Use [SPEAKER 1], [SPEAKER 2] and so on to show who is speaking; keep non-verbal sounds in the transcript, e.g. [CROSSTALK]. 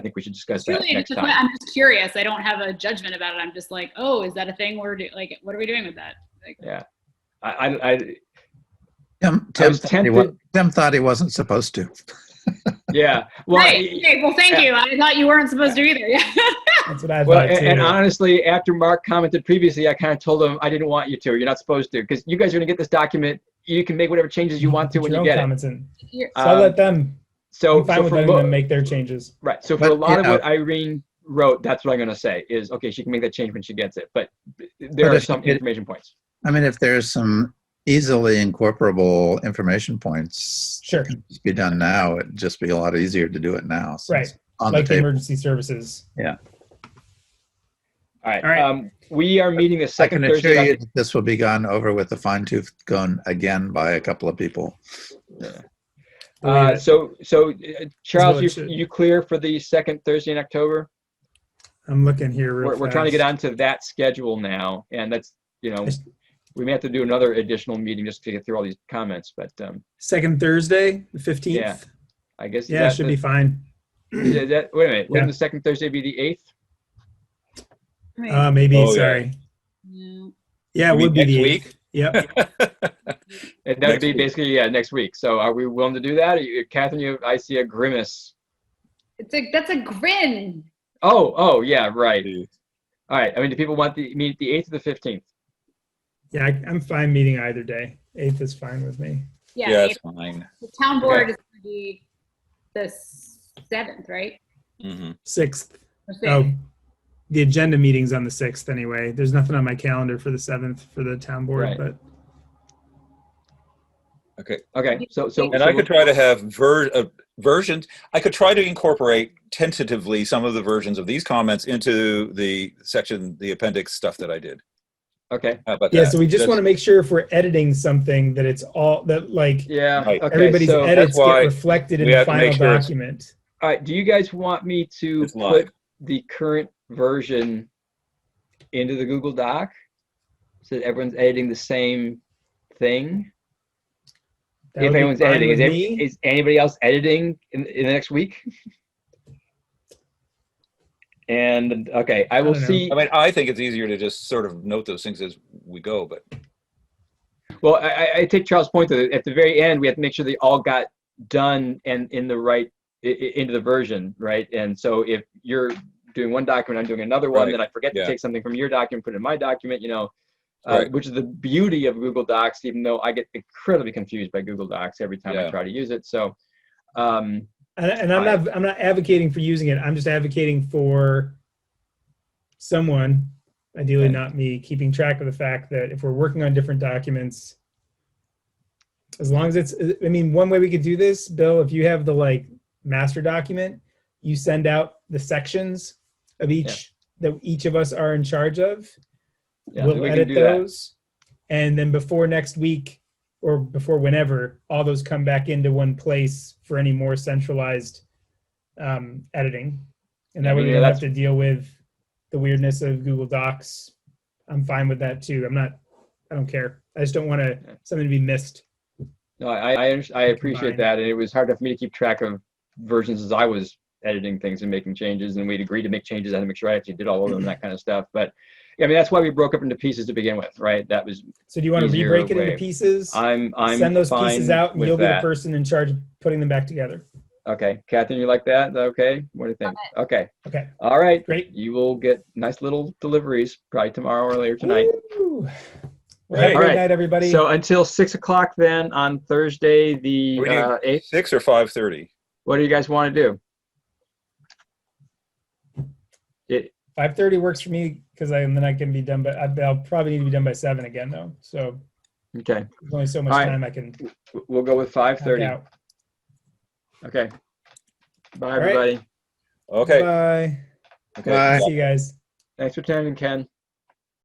[SPEAKER 1] I think we should discuss that
[SPEAKER 2] Truly,
[SPEAKER 1] next
[SPEAKER 2] just,
[SPEAKER 1] time.
[SPEAKER 2] I'm just curious. I don't have a judgment about it. I'm just like, oh, is that a thing? We're do- like, what are we doing with that? Like,
[SPEAKER 1] I, I, I,
[SPEAKER 3] Tim,
[SPEAKER 1] I
[SPEAKER 3] Tim,
[SPEAKER 1] was
[SPEAKER 3] thought he wa-
[SPEAKER 1] tempted.
[SPEAKER 3] Tim thought he wasn't supposed to.
[SPEAKER 1] Yeah. Well,
[SPEAKER 2] right. okay, well, thank
[SPEAKER 1] yeah.
[SPEAKER 2] you. I thought you weren't supposed to either. [LAUGHS] Yeah.
[SPEAKER 4] That's what I
[SPEAKER 1] Well,
[SPEAKER 4] thought
[SPEAKER 1] and,
[SPEAKER 4] too.
[SPEAKER 1] and honestly, after Mark commented previously, I kind of told him I didn't want you to. You're not supposed to because you guys are going to get this document. You can make whatever changes you want to
[SPEAKER 4] Put
[SPEAKER 1] when
[SPEAKER 4] your
[SPEAKER 1] you
[SPEAKER 4] own
[SPEAKER 1] get it.
[SPEAKER 4] comments in.
[SPEAKER 2] You're-
[SPEAKER 4] So I
[SPEAKER 1] Um,
[SPEAKER 4] let them.
[SPEAKER 1] So,
[SPEAKER 4] I'm fine
[SPEAKER 1] so
[SPEAKER 4] with
[SPEAKER 1] for
[SPEAKER 4] letting
[SPEAKER 1] mo-
[SPEAKER 4] them make their changes.
[SPEAKER 1] right. So for a
[SPEAKER 3] But,
[SPEAKER 1] lot of
[SPEAKER 3] yeah.
[SPEAKER 1] what Irene wrote, that's what I'm going to say is okay. She can make that change when she gets it, but there
[SPEAKER 3] But
[SPEAKER 1] are
[SPEAKER 3] if
[SPEAKER 1] some
[SPEAKER 3] it-
[SPEAKER 1] information points.
[SPEAKER 3] I mean, if there's some easily incorporable information points,
[SPEAKER 4] Sure.
[SPEAKER 3] it could just be done now. It'd just be a lot easier to do it now. since
[SPEAKER 4] Right.
[SPEAKER 3] it's On the
[SPEAKER 4] Like the
[SPEAKER 3] table.
[SPEAKER 4] emergency services.
[SPEAKER 1] All right.
[SPEAKER 4] All right.
[SPEAKER 1] Um, we are meeting the
[SPEAKER 3] I
[SPEAKER 1] second
[SPEAKER 3] can
[SPEAKER 1] Thursday.
[SPEAKER 3] assure
[SPEAKER 1] of-
[SPEAKER 3] you that this will be gone over with a fine tooth gun again by a couple of people.
[SPEAKER 1] Uh,
[SPEAKER 4] Believe it.
[SPEAKER 1] so, so uh, Charles,
[SPEAKER 5] what
[SPEAKER 1] you
[SPEAKER 5] it should.
[SPEAKER 1] you clear for the second Thursday in October?
[SPEAKER 5] I'm looking here. Real
[SPEAKER 1] We're, we're trying to get
[SPEAKER 5] fast.
[SPEAKER 1] onto that schedule now, and that's you know
[SPEAKER 5] Just-
[SPEAKER 1] we may have to do another additional meeting just to get through all these comments, but um,
[SPEAKER 5] Second Thursday, the 15th.
[SPEAKER 1] Yeah. I guess
[SPEAKER 5] Yeah, it
[SPEAKER 1] that
[SPEAKER 5] should
[SPEAKER 1] the-
[SPEAKER 5] be fine.
[SPEAKER 1] is that, wait a minute. Wouldn't
[SPEAKER 4] Yeah.
[SPEAKER 1] the second Thursday be the eighth?
[SPEAKER 2] Right.
[SPEAKER 5] Uh, maybe.
[SPEAKER 6] Oh, yeah.
[SPEAKER 5] sorry.
[SPEAKER 2] Yeah.
[SPEAKER 5] Yeah,
[SPEAKER 6] You
[SPEAKER 5] it
[SPEAKER 6] mean
[SPEAKER 5] would be
[SPEAKER 6] next
[SPEAKER 5] the
[SPEAKER 6] week?
[SPEAKER 5] 8th. Yep.
[SPEAKER 6] [LAUGHS]
[SPEAKER 1] That would
[SPEAKER 6] Next
[SPEAKER 1] be
[SPEAKER 6] week.
[SPEAKER 1] basically yeah next week. So are we willing to do that? Are you, Catherine, you I see a grimace.
[SPEAKER 2] It's a, that's a grin.
[SPEAKER 1] Oh oh yeah right.
[SPEAKER 6] Jeez.
[SPEAKER 1] All right. I mean, do people want the meet the eighth or the fifteenth?
[SPEAKER 4] Yeah, I, I'm fine meeting either day. Eighth is fine with me.
[SPEAKER 2] Yeah.
[SPEAKER 6] Yeah,
[SPEAKER 2] if
[SPEAKER 6] it's fine.
[SPEAKER 2] the town board is going to be the seventh, right?
[SPEAKER 6] hmm
[SPEAKER 4] Sixth.
[SPEAKER 2] Or sixth.
[SPEAKER 4] Oh, the agenda meeting's on the sixth anyway. There's nothing on my calendar for the seventh for the town board,
[SPEAKER 1] Right.
[SPEAKER 4] but
[SPEAKER 6] Okay.
[SPEAKER 1] Okay. So so
[SPEAKER 6] And
[SPEAKER 1] so
[SPEAKER 6] I
[SPEAKER 1] we'll-
[SPEAKER 6] could try to have ver- uh, versions. I could try to incorporate tentatively some of the versions of these comments into the section, the appendix stuff that I did.
[SPEAKER 1] okay
[SPEAKER 6] How about
[SPEAKER 4] yeah,
[SPEAKER 6] that?
[SPEAKER 4] so we just
[SPEAKER 6] That's-
[SPEAKER 4] want to make sure if we're editing something that it's all that like
[SPEAKER 1] yeah
[SPEAKER 6] Right.
[SPEAKER 1] okay,
[SPEAKER 4] everybody's
[SPEAKER 1] so-
[SPEAKER 4] edits get
[SPEAKER 6] why
[SPEAKER 4] reflected in
[SPEAKER 6] we
[SPEAKER 4] the
[SPEAKER 6] have to
[SPEAKER 4] final
[SPEAKER 6] make sure it's-
[SPEAKER 4] document.
[SPEAKER 1] All right, do you guys want me to
[SPEAKER 6] It's live.
[SPEAKER 1] put the current version into the Google Doc? So that everyone's editing the same thing?
[SPEAKER 4] That would
[SPEAKER 1] if
[SPEAKER 4] be
[SPEAKER 1] anyone's
[SPEAKER 4] fine
[SPEAKER 1] editing, is,
[SPEAKER 4] with
[SPEAKER 1] ev-
[SPEAKER 4] me.
[SPEAKER 1] is anybody else editing in, in the next week? [LAUGHS] and okay, I will
[SPEAKER 4] don't know.
[SPEAKER 1] see.
[SPEAKER 6] I mean, I think it's easier to just sort of note those things as we go, but
[SPEAKER 1] Well, I- I, I take Charles' point that at the very end, we have to make sure they all got done and in the right, i- i- into the version, right? And so if you're doing one document, I'm doing another one,
[SPEAKER 6] Right.
[SPEAKER 1] then I forget to
[SPEAKER 6] Yeah.
[SPEAKER 1] take something from your document, put it in my document, you know, uh,
[SPEAKER 6] Right.
[SPEAKER 1] which is the beauty of Google Docs, even though I get incredibly confused by Google Docs every time I
[SPEAKER 6] Yeah.
[SPEAKER 1] try to use it. So, um,
[SPEAKER 4] and, and I'm not I'm not advocating for using it. I'm just advocating for someone, ideally
[SPEAKER 1] Okay.
[SPEAKER 4] not me, keeping track of the fact that if we're working on different documents, as long as it's I mean, one way we could do this, Bill, if you have the like master document, you send out the sections of each that each of us are in charge of.
[SPEAKER 1] yeah,
[SPEAKER 4] we'll
[SPEAKER 1] we can
[SPEAKER 4] edit
[SPEAKER 1] do that.
[SPEAKER 4] those. And then before next week or before whenever, all those come back into one place for any more centralized um, editing. And that way we
[SPEAKER 1] Yeah,
[SPEAKER 4] don't have
[SPEAKER 1] that's-
[SPEAKER 4] to deal with the weirdness of Google Docs. I'm fine with that too. I'm not, I don't care. I just don't want to, something to be missed.
[SPEAKER 1] No, I, I, under- I appreciate
[SPEAKER 4] Combined.
[SPEAKER 1] that. And it was hard for me to keep track of versions as I was editing things and making changes. And we'd agree to make changes. I had to make sure I actually did all of them and that kind of stuff. But yeah, I mean, that's why we broke up into pieces to begin with, right? That was,
[SPEAKER 4] So do you want to
[SPEAKER 1] Easier
[SPEAKER 4] re-break it
[SPEAKER 1] way.
[SPEAKER 4] into pieces?
[SPEAKER 1] I'm, I'm
[SPEAKER 4] Send those
[SPEAKER 1] fine
[SPEAKER 4] pieces out and
[SPEAKER 1] with
[SPEAKER 4] you'll be the
[SPEAKER 1] that.
[SPEAKER 4] person in charge of putting them back together.
[SPEAKER 1] Okay. Catherine, you like that? Is that okay? What do you think? Okay.
[SPEAKER 4] Okay,
[SPEAKER 1] All right.
[SPEAKER 4] great.
[SPEAKER 1] You will get nice little deliveries probably tomorrow or later tonight.
[SPEAKER 4] Woo! Well, have a great
[SPEAKER 6] Right.
[SPEAKER 1] All right.
[SPEAKER 4] night, everybody.
[SPEAKER 1] So until six o'clock then on Thursday, the
[SPEAKER 6] We do-
[SPEAKER 1] uh, 8th,
[SPEAKER 6] six or five thirty.
[SPEAKER 1] what do you guys want to do? It,
[SPEAKER 4] Five thirty works for me because I am then I can be done. But I'll probably need to be done by seven again though. So
[SPEAKER 1] Okay,
[SPEAKER 4] there's only so much
[SPEAKER 1] All right.
[SPEAKER 4] time I can. knock
[SPEAKER 1] w- we'll go with five thirty.
[SPEAKER 4] out.
[SPEAKER 1] Okay. Bye,
[SPEAKER 4] right.
[SPEAKER 1] everybody.
[SPEAKER 6] Okay.
[SPEAKER 4] Bye.
[SPEAKER 6] okay.
[SPEAKER 3] Bye.
[SPEAKER 4] See you guys.
[SPEAKER 1] Thanks for attending, Ken.